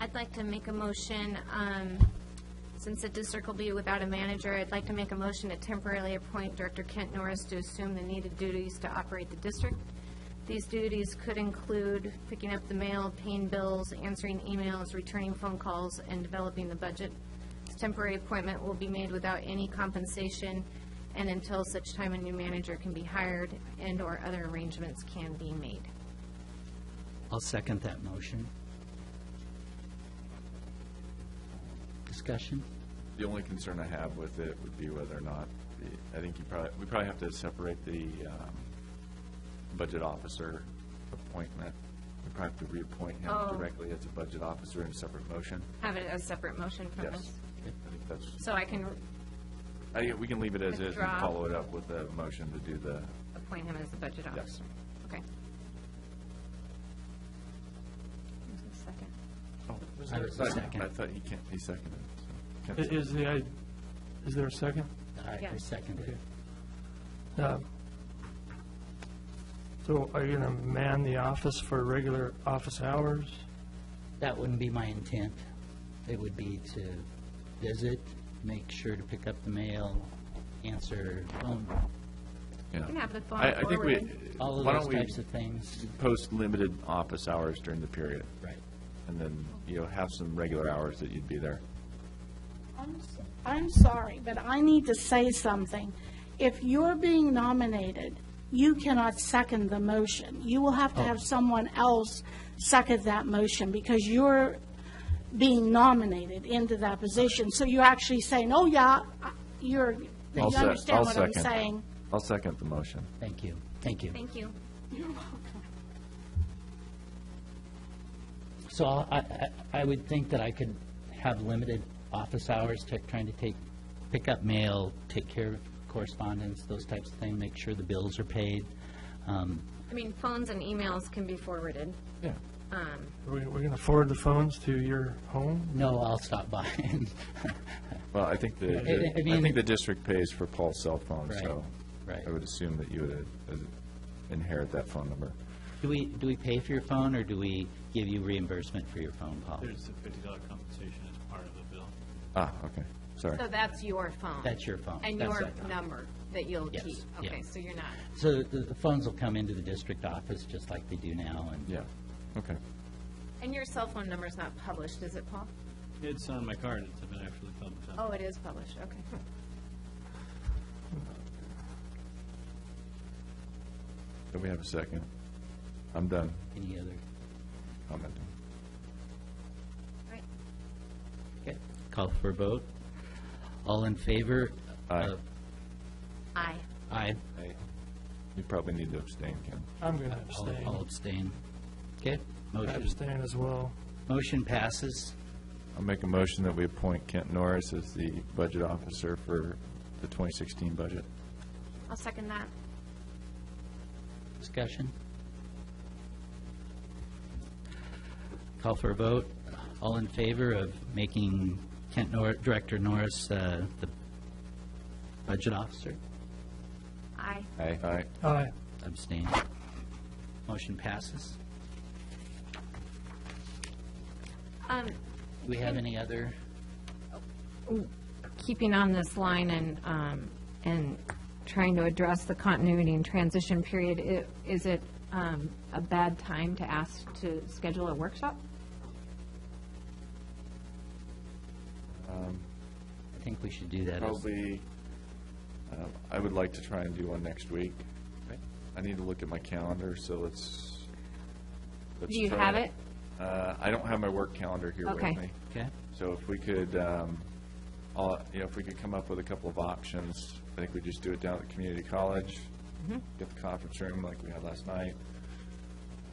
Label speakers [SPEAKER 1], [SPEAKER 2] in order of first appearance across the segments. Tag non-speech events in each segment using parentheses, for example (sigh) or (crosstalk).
[SPEAKER 1] I'd like to make a motion, um, since the district will be without a manager, I'd like to make a motion to temporarily appoint Director Kent Norris to assume the needed duties to operate the district. These duties could include picking up the mail, paying bills, answering emails, returning phone calls, and developing the budget. This Temporary appointment will be made without any compensation and until such time a new manager can be hired and/or other arrangements can be made.
[SPEAKER 2] I'll second that motion. Discussion?
[SPEAKER 3] The only concern I have with it would be whether or not, the- I think you probably, we probably have to separate the um, budget officer appointment. We probably have to reappoint him
[SPEAKER 1] Oh.
[SPEAKER 3] directly as a budget officer in a separate motion.
[SPEAKER 1] Have it as a separate motion from
[SPEAKER 3] Yes.
[SPEAKER 1] this.
[SPEAKER 3] I think that's,
[SPEAKER 1] So I can
[SPEAKER 3] I think we can leave it as is and
[SPEAKER 1] Withdraw.
[SPEAKER 3] follow it up with a motion to do the,
[SPEAKER 1] appoint him as the budget officer? Okay.
[SPEAKER 3] oh, was
[SPEAKER 2] I
[SPEAKER 3] there a
[SPEAKER 2] was the
[SPEAKER 3] second?
[SPEAKER 2] second.
[SPEAKER 3] I thought he can't, he seconded. so.
[SPEAKER 4] I- Is the, i- is there a second?
[SPEAKER 2] I I
[SPEAKER 1] Yeah.
[SPEAKER 2] second it.
[SPEAKER 4] Uh, So are you going to man the office for regular office hours?
[SPEAKER 2] That wouldn't be my intent. It would be to visit, make sure to pick up the mail, answer phone,
[SPEAKER 3] Yeah.
[SPEAKER 1] can have the phone
[SPEAKER 3] I, I think we,
[SPEAKER 1] forwarded.
[SPEAKER 2] all of
[SPEAKER 3] why don't
[SPEAKER 2] those
[SPEAKER 3] we
[SPEAKER 2] types of things.
[SPEAKER 3] post limited office hours during the period?
[SPEAKER 2] Right.
[SPEAKER 3] And then, you know, have some regular hours that you'd be there.
[SPEAKER 5] I'm s- I'm sorry, but I need to say something. If you're being nominated, you cannot second the motion. You will
[SPEAKER 3] Oh.
[SPEAKER 5] have to have someone else second that motion because you're being nominated into that position. So you're actually saying, oh, yeah, I- you're, you
[SPEAKER 3] I'll se-
[SPEAKER 5] understand
[SPEAKER 3] I'll
[SPEAKER 5] what I'm
[SPEAKER 3] second.
[SPEAKER 5] saying?
[SPEAKER 3] I'll second the motion.
[SPEAKER 2] Thank you, thank you.
[SPEAKER 1] Thank you.
[SPEAKER 2] So I, I, I would think that I could have limited office hours, to trying to take, pick up mail, take care of correspondence, those types of things, make sure the bills are paid. Um,
[SPEAKER 1] I mean, phones and emails can be forwarded.
[SPEAKER 4] Yeah. Are we going to forward the phones to your home?
[SPEAKER 2] No, I'll stop (laughs) by and,
[SPEAKER 3] Well, I think the,
[SPEAKER 2] I- I
[SPEAKER 3] I
[SPEAKER 2] mean-
[SPEAKER 3] think the district pays for Paul's cell phone, so
[SPEAKER 2] Right, right.
[SPEAKER 3] I would assume that you would uh, inherit that phone number.
[SPEAKER 2] do we, do we pay for your phone, or do we give you reimbursement for your phone call?
[SPEAKER 6] There's a fifty dollar compensation as part of the bill.
[SPEAKER 3] Ah, okay, sorry.
[SPEAKER 7] So that's your phone?
[SPEAKER 2] That's your phone.
[SPEAKER 7] And
[SPEAKER 2] That's
[SPEAKER 7] your
[SPEAKER 2] that phone.
[SPEAKER 7] number that you'll
[SPEAKER 2] Yes,
[SPEAKER 7] keep?
[SPEAKER 2] yeah.
[SPEAKER 7] Okay, so you're not,
[SPEAKER 2] So the the phones will come into the district office just like they do now, and
[SPEAKER 3] Yeah, okay.
[SPEAKER 1] And your cell phone number's not published, is it, Paul?
[SPEAKER 6] It's on my card, it's been actually published. on-
[SPEAKER 7] oh, it is published, okay.
[SPEAKER 3] Do we have a second? I'm done.
[SPEAKER 2] any other,
[SPEAKER 3] I'm not done.
[SPEAKER 1] Right.
[SPEAKER 2] okay, call for a vote. All in favor?
[SPEAKER 3] Aye.
[SPEAKER 2] of-
[SPEAKER 1] Aye.
[SPEAKER 2] Aye.
[SPEAKER 3] You probably need to abstain, Ken.
[SPEAKER 4] I'm going to
[SPEAKER 2] All-
[SPEAKER 4] abstain.
[SPEAKER 2] All abstain. Okay,
[SPEAKER 4] I
[SPEAKER 2] motion,
[SPEAKER 4] abstain as well.
[SPEAKER 2] motion passes.
[SPEAKER 3] I'll make a motion that we appoint Kent Norris as the budget officer for the 2016 budget.
[SPEAKER 1] I'll second that.
[SPEAKER 2] Discussion? Call for a vote. All in favor of making Kent Nor, Director Norris, uh, the budget officer?
[SPEAKER 1] Aye.
[SPEAKER 3] Aye. Aye.
[SPEAKER 4] Aye.
[SPEAKER 2] Abstain. Motion passes.
[SPEAKER 1] Um,
[SPEAKER 2] Do we have any other?
[SPEAKER 1] keeping on this line and, um, and trying to address the continuity and transition period, i- is it, um, a bad time to ask to schedule a workshop?
[SPEAKER 2] I think we should do that. as-
[SPEAKER 3] Probably, uh, I would like to try and do one next week. I need to look at my calendar, so let's. let's
[SPEAKER 1] Do you
[SPEAKER 3] try
[SPEAKER 1] have it?
[SPEAKER 3] Uh, I don't have my work calendar here with
[SPEAKER 1] Okay.
[SPEAKER 3] me.
[SPEAKER 2] Okay,
[SPEAKER 3] So if we could, um, all- you know, if we could come up with a couple of options, I think we just do it down at the community college,
[SPEAKER 1] Mm-hmm.
[SPEAKER 3] get the conference room like we had last night.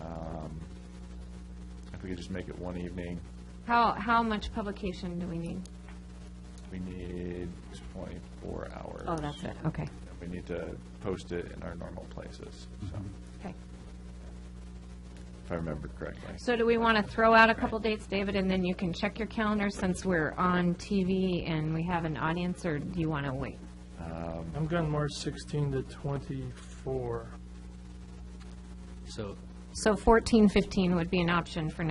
[SPEAKER 3] Um, If we could just make it one evening,
[SPEAKER 1] How, how much publication do we need?
[SPEAKER 3] we need twenty-four hours.
[SPEAKER 1] Oh, that's it, okay,
[SPEAKER 3] and We need to post it in our normal places, so,
[SPEAKER 1] okay.
[SPEAKER 3] if I remember correctly.
[SPEAKER 1] So do we want to throw out a couple dates, David, and then you can check your calendar since we're on TV and we have an audience, or do you want to wait?
[SPEAKER 4] I'm going March 16 to 24.
[SPEAKER 2] so
[SPEAKER 1] So fourteen, fifteen would be an option for